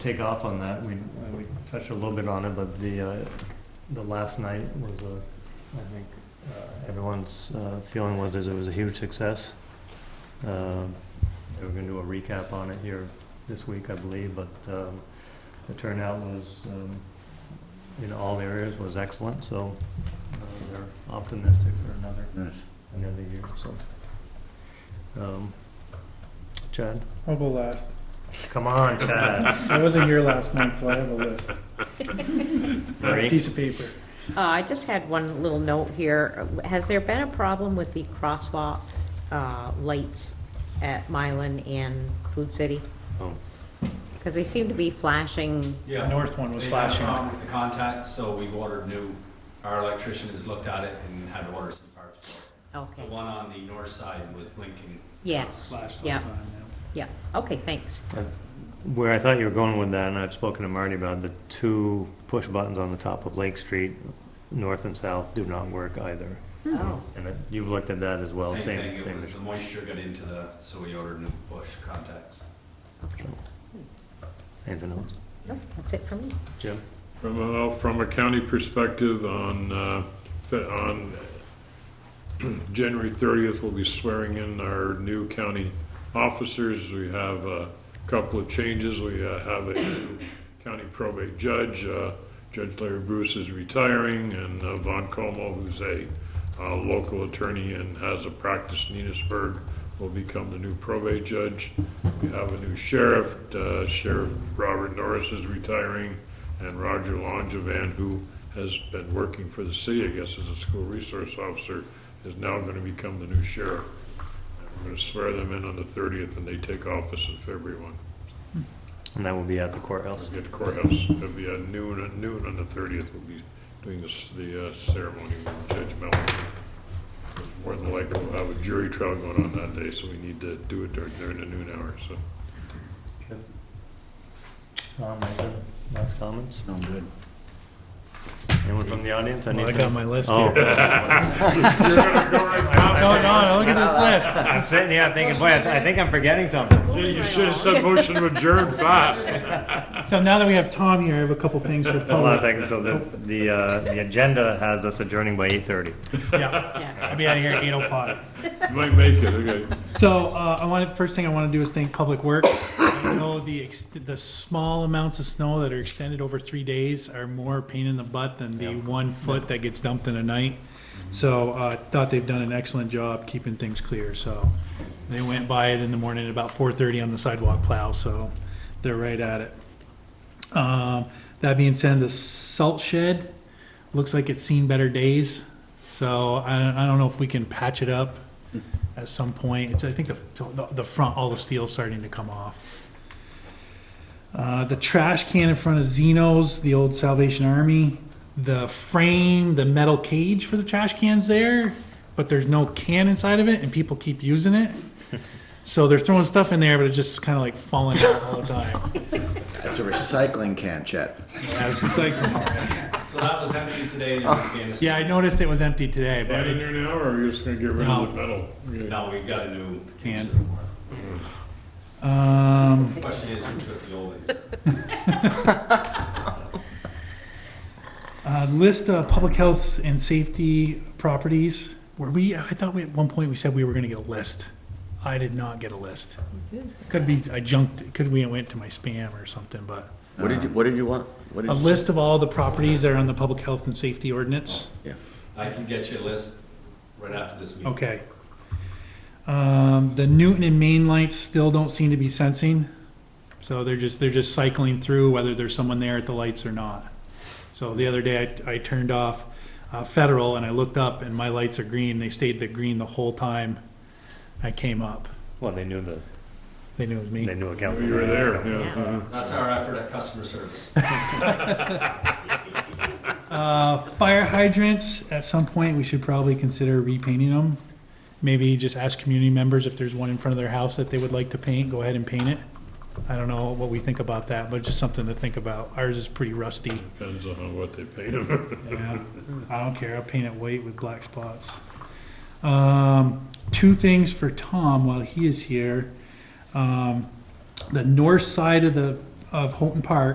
take off on that. We, we touched a little bit on it, but the, uh, the last night was a, I think, uh, everyone's, uh, feeling was that it was a huge success. Uh, They were gonna do a recap on it here this week, I believe, but, um, the turnout was, um, in all areas was excellent, so, uh, they're optimistic for another, Nice. another year, so. Um, Chad, I'll go last. come on, Chad. I wasn't here last month, so I have a list. A Marie? piece of paper. Uh, I just had one little note here. Has there been a problem with the crosswalk uh, lights at Mylan and Food City? Oh. Because they seem to be flashing, The Yeah, north one was they had a flashing. problem with the contacts, so we've ordered new, our electrician has looked at it and had to order some parts for it. okay, The one on the north side was blinking. yes, Flashed all the yeah, time, yeah, okay, thanks. Where I thought you were going with that, and I've spoken to Marty about it, the two push buttons on the top of Lake Street, north and south, do not work either. Oh, And it- you've looked at that as well, Same same, thing, it same was the issue. moisture got into the, so we ordered new bush contacts. okay. Anything else? No, that's it for me. Jim? From a, from a county perspective, on, uh, fe- on January 30th, we'll be swearing in our new county officers. We have a couple of changes. We uh, have a new county probate judge. Uh, Judge Larry Bruce is retiring, and uh, Von Como, who's a uh, local attorney and has a practice in Enosburg, will become the new probate judge. We have a new sheriff. Uh, Sheriff Robert Norris is retiring, and Roger Longevan, who has been working for the city, I guess, as a school resource officer, is now going to become the new sheriff. And We're going to swear them in on the 30th, and they take office in February 1. And that will be at the courthouse. At the courthouse, it'll be at noon, at noon on the 30th, we'll be doing this- the uh, ceremony with Judge Mellon. More than likely, we'll have a jury trial going on that day, so we need to do it during during the noon hour, so. Tom, anything? last comments? Sound good. Anyone from the audience? yeah. Anything? list Oh. You're gonna go right past No, no, look at this list. I'm sitting here, I'm thinking, boy, I I think I'm forgetting something. it. You should have said motion to adjourn fast. So now that we have Tom here, I have a couple things for Hold on a public. second, so the, the, uh, the agenda has us adjourning by 8:30. Yeah, Yeah, I'll be out of here at eight oh five. You might make it, okay. So uh, I want first thing I want to do is thank Public Works. I know the ex- the small amounts of snow that are extended over three days are more pain in the butt than the one foot that gets dumped in a night. So uh, I thought they've done an excellent job keeping things clear. So they went by it in the morning at about 4:30 on the sidewalk plow. So they're right at it. Um, that being said, the salt shed looks like it's seen better days. So I, I don't know if we can patch it up at some point. It's, I think the, the, the front, all the steel's starting to come off. Uh, the trash can in front of Zeno's, the old Salvation Army, the frame, the metal cage for the trash cans there, but there's no can inside of it, and people keep using it. So they're throwing stuff in there, but it's just kind of like falling out all the time. That's a recycling can, Chet. It's like- So that was empty today and it's being- Oh, yeah, I noticed it was empty today, but Right in it, there now, or are you just gonna get rid of the metal? Now we've got a new. Can. Um, The Question is, who took the old ones? Uh, list of public health and safety properties. Were we, I thought we, at one point we said we were gonna get a list. I did not get a list. Could be, I junked, could we went to my spam or something, but. What did you, what did you want? What A did you? list of all the properties that are on the public health and safety ordinance. I can get you a list right after this meeting. Okay. Um, the Newton and Main lights still don't seem to be sensing, so they're just they're just cycling through whether there's someone there at the lights or not. So the other day I, I turned off uh, Federal and I looked up and my lights are green. They stayed the green the whole time I came up. Well, they knew the, They knew it was me. they knew a council. You were there, yeah. yeah. That's our effort at customer service. Uh, fire hydrants, at some point, we should probably consider repainting them. Maybe just ask community members if there's one in front of their house that they would like to paint, go ahead and paint it. I don't know what we think about that, but just something to think about. Ours is pretty rusty. Depends on what they paid him. Yeah, I don't care. I'll paint it white with black spots. Um, two things for Tom while he is here. Um, the north side of the of Houghton Park